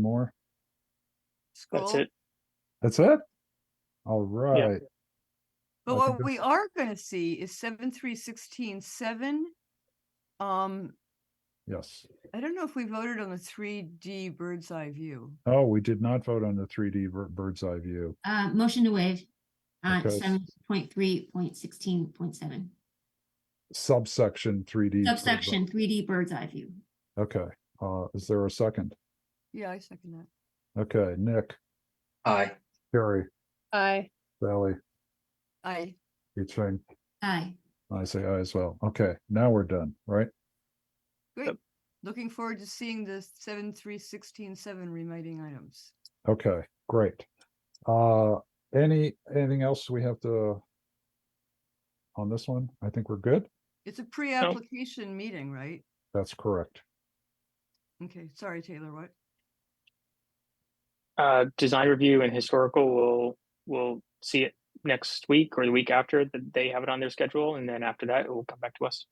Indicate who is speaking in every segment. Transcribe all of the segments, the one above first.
Speaker 1: more.
Speaker 2: That's
Speaker 3: Cool.
Speaker 2: it.
Speaker 1: That's it? All right, I
Speaker 3: But
Speaker 1: think
Speaker 3: what we are gonna see is seven, three, sixteen, seven. Um,
Speaker 1: yes.
Speaker 3: I don't know if we voted on the three D bird's eye view.
Speaker 1: Oh, we did not vote on the three D bird's eye view.
Speaker 4: Uh, motion to waive on
Speaker 1: Okay.
Speaker 4: seven point three point sixteen point seven,
Speaker 1: Subsection three D.
Speaker 4: subsection three D bird's eye view.
Speaker 1: Okay, uh, is there a second?
Speaker 3: Yeah, I second that.
Speaker 1: Okay, Nick,
Speaker 2: Aye.
Speaker 1: Carrie,
Speaker 5: Aye.
Speaker 1: Sally,
Speaker 3: I,
Speaker 1: Yicheng,
Speaker 4: Aye.
Speaker 1: I say aye as well. Okay, now we're done, right?
Speaker 3: great. Looking forward to seeing the seven, three, sixteen, seven remiting items.
Speaker 1: Okay, great. Uh, any, anything else we have to on this one? I think we're good.
Speaker 3: It's a pre-application meeting, right?
Speaker 1: That's correct.
Speaker 3: Okay, sorry, Taylor, what?
Speaker 2: Uh, design review and historical will will see it next week or the week after that they have it on their schedule, and then after that it will come back to us.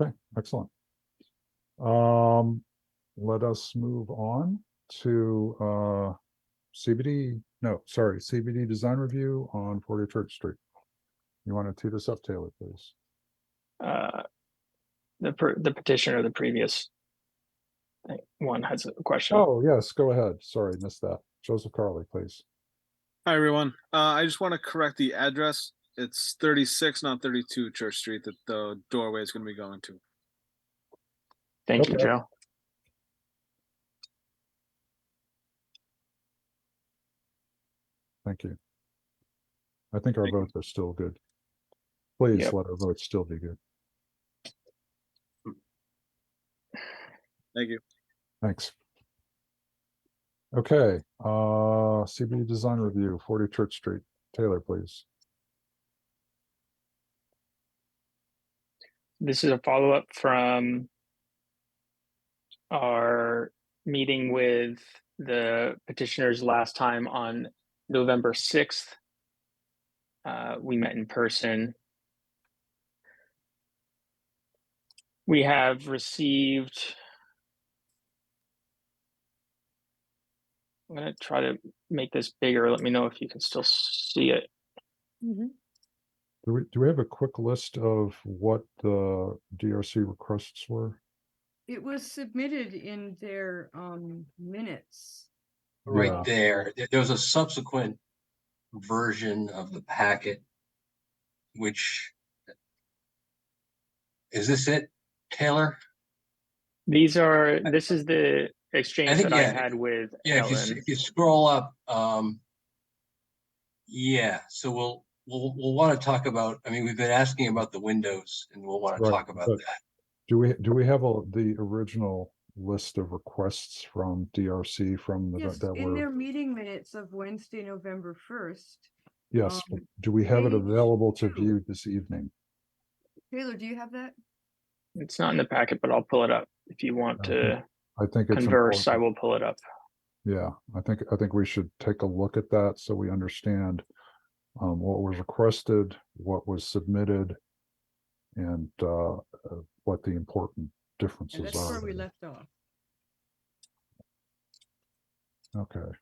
Speaker 1: Okay, excellent. Um, let us move on to, uh, CBD, no, sorry, CBD design review on Forty Church Street. You want to tee this up, Taylor, please?
Speaker 2: Uh, the per- the petitioner, the previous uh, one has a question.
Speaker 1: Oh, yes, go ahead. Sorry, missed that. Joseph Carley, please.
Speaker 6: Hi, everyone. Uh, I just want to correct the address. It's thirty-six, not thirty-two Church Street that the doorway is going to be going to.
Speaker 2: Thank you,
Speaker 1: okay.
Speaker 2: Joe.
Speaker 1: Thank you. I think our
Speaker 6: Thank you.
Speaker 1: votes are still good. Please
Speaker 2: Yep.
Speaker 1: let our votes still be good.
Speaker 6: Thank you.
Speaker 1: Thanks. Okay, uh, CBD design review, forty Church Street. Taylor, please.
Speaker 2: This is a follow up from our meeting with the petitioners last time on November 6th. Uh, we met in person. We have received. I'm going to try to make this bigger. Let me know if you can still see it.
Speaker 1: Do we, do we have a quick list of what the DRC requests were?
Speaker 3: It was submitted in their, um, minutes.
Speaker 1: Yeah.
Speaker 7: right there. There- There was a subsequent version of the packet, which is this it, Taylor?
Speaker 2: These are, this is the exchange
Speaker 7: think,
Speaker 2: that I
Speaker 7: yeah.
Speaker 2: had with
Speaker 7: Yeah, if you, s-
Speaker 2: Ellen.
Speaker 7: if you scroll up, um, yeah, so we'll, we'll, we'll want to talk about, I mean, we've been asking about the windows and we'll want to
Speaker 1: Right,
Speaker 7: talk about
Speaker 1: but-
Speaker 7: that.
Speaker 1: Do we, do we have a, the original list of requests from DRC from the,
Speaker 3: Yes,
Speaker 1: that
Speaker 3: in their
Speaker 1: were?
Speaker 3: meeting minutes of Wednesday, November first.
Speaker 1: Yes, but
Speaker 3: um,
Speaker 1: do we have it
Speaker 3: page
Speaker 1: available to
Speaker 3: two.
Speaker 1: view this evening?
Speaker 3: Taylor, do you have that?
Speaker 2: It's not in the packet, but I'll pull it up. If you want
Speaker 1: Okay.
Speaker 2: to
Speaker 1: I think it's.
Speaker 2: converse, I
Speaker 1: important.
Speaker 2: will pull it up.
Speaker 1: Yeah, I think, I think we should take a look at that so we understand um, what was requested, what was submitted, and uh, uh, what the important differences
Speaker 3: And
Speaker 1: are.
Speaker 3: that's where we
Speaker 1: there.
Speaker 3: left off.
Speaker 1: Okay.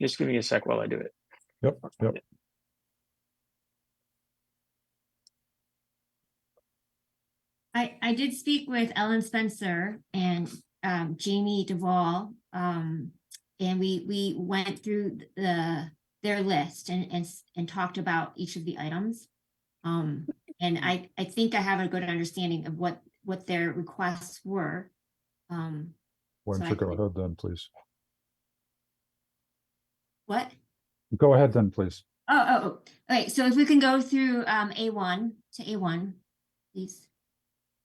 Speaker 2: Just give me a sec while I do it.
Speaker 1: Yep, yep.
Speaker 4: I, I did speak with Ellen Spencer and um, Jamie Duvall. Um, and we, we went through the, their list and, and, s- and talked about each of the items. Um, and I, I think I have a good understanding of what, what their requests were. Um,
Speaker 1: Why
Speaker 4: So
Speaker 1: don't
Speaker 4: I
Speaker 1: you go
Speaker 4: think-
Speaker 1: ahead then, please?
Speaker 4: what?
Speaker 1: Go ahead then, please.
Speaker 4: Oh, oh, oh, okay, so if we can go through um A one to A one, please.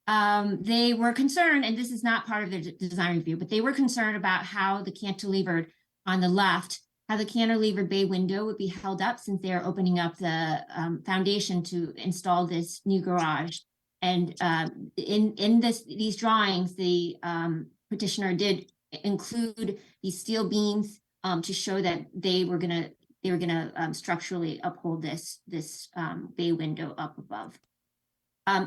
Speaker 4: Um, they were concerned, and this is not part of the d- design review, but they were concerned about how the cantilevered on the left, how the cantilever bay window would be held up since they are opening up the um foundation to install this new garage. And um in in this, these drawings, the um petitioner did i- include these steel beams um to show that they were gonna they were gonna um structurally uphold this, this um bay window up above.